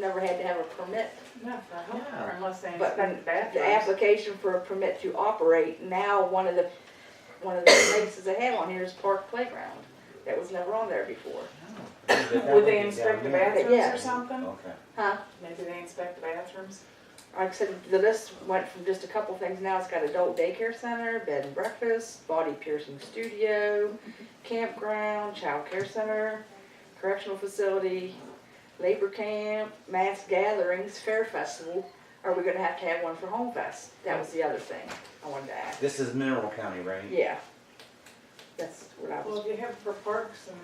Never had to have a permit. No, for a home, Yeah. unless they But inspect the The bathrooms. application for a permit to operate, now one of the, one of the places they have on here is Park Playground. That was never on there before. Would they inspect the bathrooms Yeah. or something? Okay. Maybe they inspect the bathrooms? Like I said, the list went from just a couple things, now it's got adult daycare center, bed and breakfast, body piercing studio, campground, childcare center, correctional facility, labor camp, mass gatherings, fair festival. Are we gonna have to have one for Home Fest? That was the other thing I wanted to ask. This is Mineral County, right? Yeah. That's what I Well, was, if you have for parks and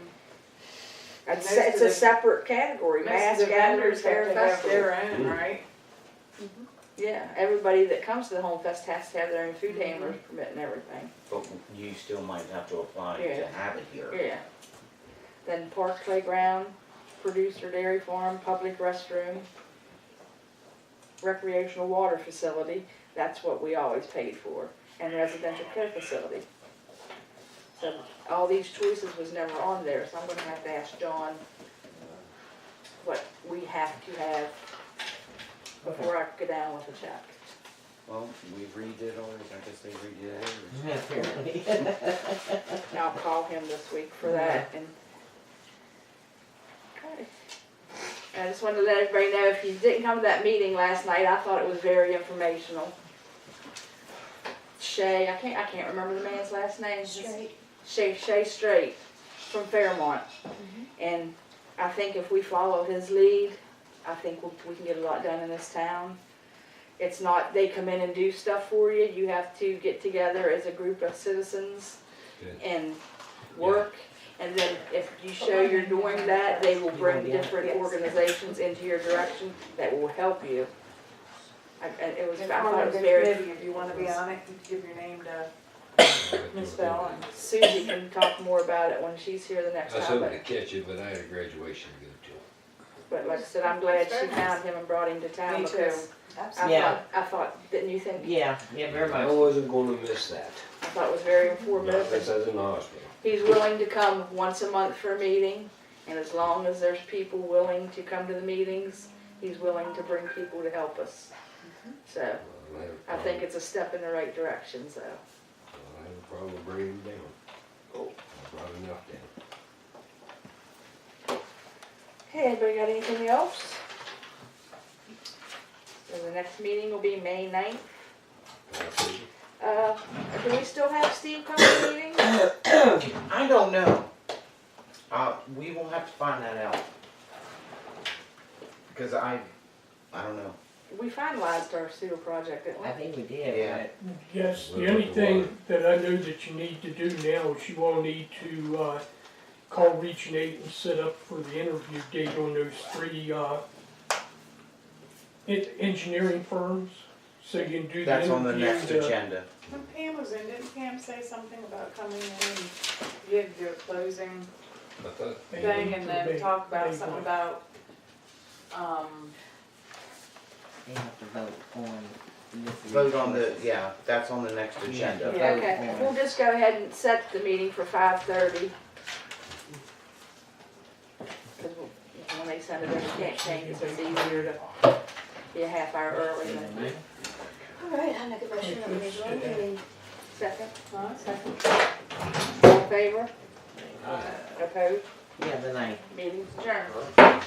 I'd most say it's of a the- separate category, most mass of the gatherings, vendors fair have to have festival. their own, Mm. right? Yeah, everybody that comes to the Home Fest has to have their own food Mhm. handlers permit and everything, But you still might have to apply Yeah. to have it here. yeah. Then park playground, producer dairy farm, public restroom, recreational water facility, that's what we always paid for, and residential care facility. So all these choices was never on there, so I'm gonna have to ask John what we have to have before I go down with a check. Well, we redid ours, I guess they redid ours. Apparently. And I'll call him this week for that and. Okay. I just wanted to let everybody know, if you didn't come to that meeting last night, I thought it was very informational. Shay, I can't, I can't remember the man's last name. Shay, Shay Straight from Fairmont. And I think if we follow his lead, I think we, we can get a lot done in this town. It's not, they come in and do stuff for you, you have to get together as a group of citizens Good. and work. And then if you show you're doing that, they will bring different organizations into your direction that will help you. I, I- it was, I And thought part it of was the very, committee, if you wanna be on it, you can give your name to Ms. Bell and. Susie can talk more about it when she's here the I next was time, hoping but. to catch it, but I had a graduation to go to. But like I said, I'm glad she Very nice. found him and brought him to town Me too. because I Yeah. thought, I thought, didn't you think? Yeah, yeah, very I Oh, much. wasn't gonna miss that, I thought it was very not informative. unless and I was in the hospital. He's willing to come once a month for a meeting and as long as there's people willing to come to the meetings, he's willing to bring people to help us. So Well, have a I think problem- it's a step in the right direction, so. well, I have a problem bringing them down. Oh. I brought enough down. Hey, anybody got anything else? So the next meeting will be May ninth. I said, Uh, do we still have Steve coming to meetings? I don't know. Uh, we will have to find that out. Because I, I don't know. We finalized our sewer project, didn't we? I think we did. Yeah. Yes, the only thing that I know that you need to do now is you will need to, uh, call Region Eight and set up for the interview date on those three, uh, en- engineering firms, so you can do the That's on the interview, uh, next the, agenda. When Pam was in, didn't Pam say something about coming in and you had to do a closing I thought, Hey, thing and then they- talk about they something would. about, um, They have to vote on this. Vote on the, yeah, that's on the next agenda. Yeah. Okay, we'll just go ahead and set the meeting for five thirty. Cause we'll- when they send it, in, we can't change it, so it's easier to be a half hour early than All right, I make a motion that we adjourn the meeting. second, huh? all in favor? Opposed, Yeah, the ninth. meeting's adjourned.